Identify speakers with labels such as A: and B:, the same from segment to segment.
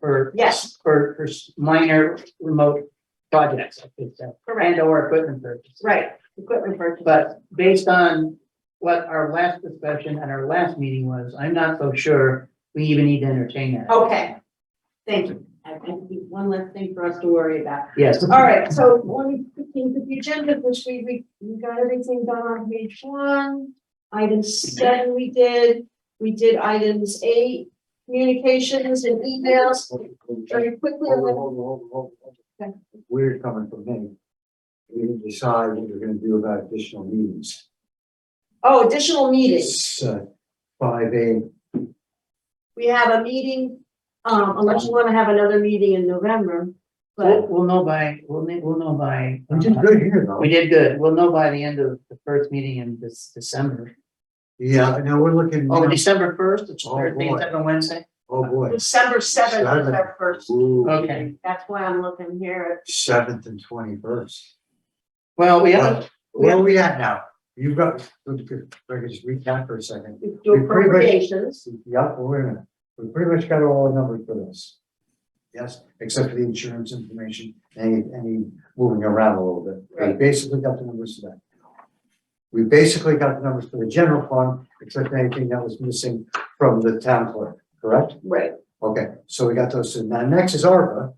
A: for.
B: Yes.
A: For, for s- minor remote projects, I think so, and
B: Correct,
A: or equipment purchases.
B: right, equipment purchase.
A: But based on what our last discussion and our last meeting was, I'm not so sure we even need to entertain that.
B: Okay, thank you. I think we- one less thing for us to worry about.
A: Yes.
B: All right, so one fifteen of the agenda, which we, we, we got everything done on page one. Item seven we did, we did items eight, communications and emails,
C: Hold,
B: very quickly.
C: hold, hold, hold, hold, hold.
B: Okay.
C: We're coming from me. We didn't decide what we're gonna do about additional meetings.
B: Oh, additional meetings.
C: It's uh, five A,
B: We have a meeting, um, unless you wanna have another meeting in November,
A: We'll,
B: but
A: we'll know by, we'll, ne- we'll know by. uh,
C: which is good here though.
A: We did good. We'll know by the end of the first meeting in this December.
C: Yeah, now we're looking,
A: Oh, December first, it's
C: Oh,
A: Thursday,
C: boy.
A: it's on Wednesday.
C: oh boy.
B: December seventh is our first.
C: Ooh,
A: Okay.
B: meeting. That's why I'm looking here
C: Seventh and twenty-first.
A: Well, we haven't,
C: Where are we at now? You've got, if I could just recap for a second.
B: at do
C: We pretty much-
B: appropriations.
C: Yep, wait a minute. We pretty much got all the numbers for this. Yes, except for the insurance information, any, any moving around a little bit. We
B: Right.
C: basically got the numbers for that. We basically got the numbers for the general fund, except for anything that was missing from the town clerk, correct?
B: Right.
C: Okay, so we got those. two. Now, next is ARPA.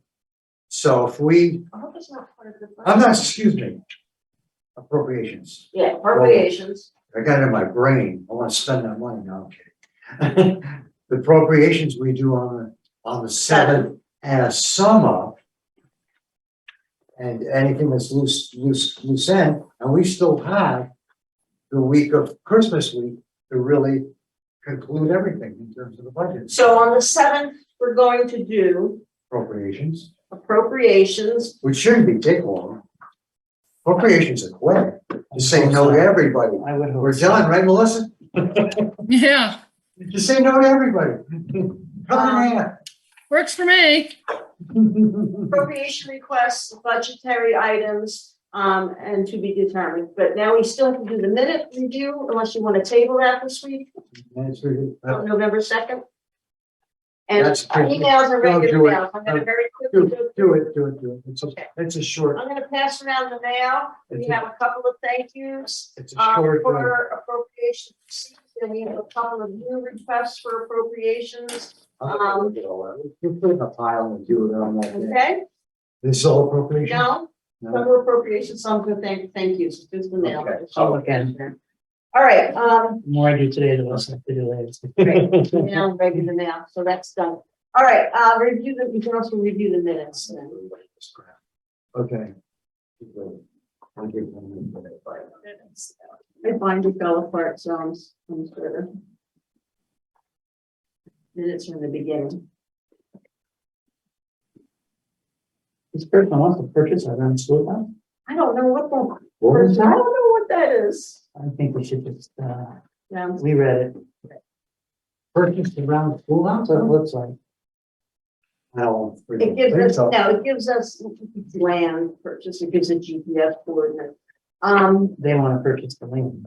C: So if we,
B: I hope it's not part of the.
C: I'm not, excuse me, appropriations.
B: Yeah, appropriations.
C: I got it in my brain, I wanna spend that money, no, I'm kidding. The appropriations we do on the, on the seventh and a sum up. And anything that's loose, loose, loose end, and we still have the week of Christmas week to really conclude everything in terms of the budget.
B: So on the seventh, we're going to do
C: Appropriations,
B: appropriations.
C: which shouldn't be take long. Appropriations are quick, just say no to everybody,
A: I would hope.
C: we're done, right, Melissa?
D: Yeah,
C: Just say no to everybody. Come in.
D: works for me.
B: Appropriation requests, budgetary items, um, and to be determined. But now we still have to do the minute review unless you want to table that this week,
C: That's really-
B: on November second. And
C: That's pretty-
B: emails are
C: Don't do
B: regular
C: it.
B: emails. I'm gonna very
C: Do
B: quickly
C: it,
B: go through.
C: do it, do it, do it. It's a, it's a short,
B: I'm gonna pass around the mail. We
C: It's a-
B: have a couple of thank yous.
C: it's a
B: Um,
C: short. uh,
B: for appropriations, receipts, and we have a couple of new requests for appropriations,
C: I'm gonna look at all that. You put it in a pile and do it on that day.
B: um, okay?
C: This is all appropriation?
B: No, some
C: No?
B: were appropriations, some were thank, thank yous, just the mail.
C: Okay.
A: Oh, again.
B: All right, um,
A: More I do today than less I do later.
B: great, now, regular mail, so that's done. All right, uh, review the, you can also review the minutes then.
C: Okay. Keep going. I'll give them a minute.
B: I find it fell apart, so I'm, s- I'm sort of. Minutes from the beginning.
A: This person wants to purchase a rent school now.
B: I don't know what that,
C: What was
B: I don't
C: that?
B: know what that is.
A: I think we should just, uh,
B: Yeah,
A: we read it,
C: Purchased around school
A: that's what it looks like.
C: No.
B: It gives us, no, it gives us land purchase, it gives a GPS coordinate. Um,
A: They want to purchase the land.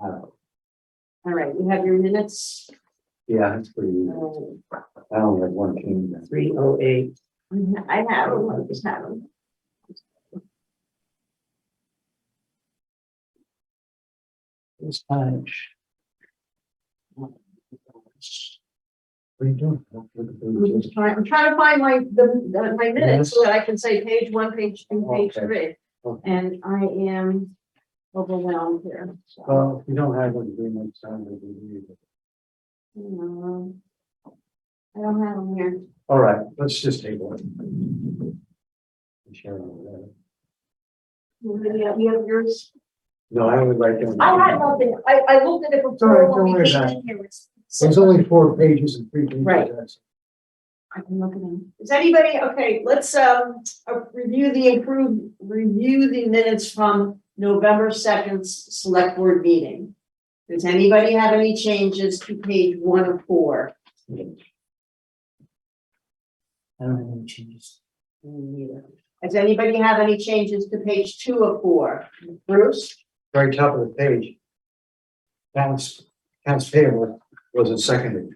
B: all right, we have your minutes.
C: Yeah, that's pretty, easy.
B: Um,
C: I only had one king then.
A: Three oh eight.
B: I have, them, I just have them.
A: It's Spanish.
C: What are you doing? Look at
B: I'm
C: the
B: just trying, I'm trying to find my, the, the- my minutes so that I can say page one, page two, page
C: Okay.
B: three.
C: Okay.
B: And I am overwhelmed here. so,
C: Well, if you don't have one, do next time, we'll do it. Oh.
B: um, I don't have them here.
C: All right, let's just table it. Sharon over there.
B: Yeah, You have yours?
C: No, I would like them.
B: I had nothing. I, I looked at it
C: Sorry,
B: before when
C: don't
B: we
C: worry
B: came
C: about
B: in here. It's-
C: There's only four pages and three pages.
B: Right.
C: That's-
B: I can look at them. Is anybody, okay, let's um, uh, review the improved, review the minutes from November second select board meeting. Does anybody have any changes to page one of four?
A: I don't have any changes.
B: Neither. Does anybody have any changes to page two of four? Bruce?
C: Very top of the page. Accounts, accounts payable wasn't seconded.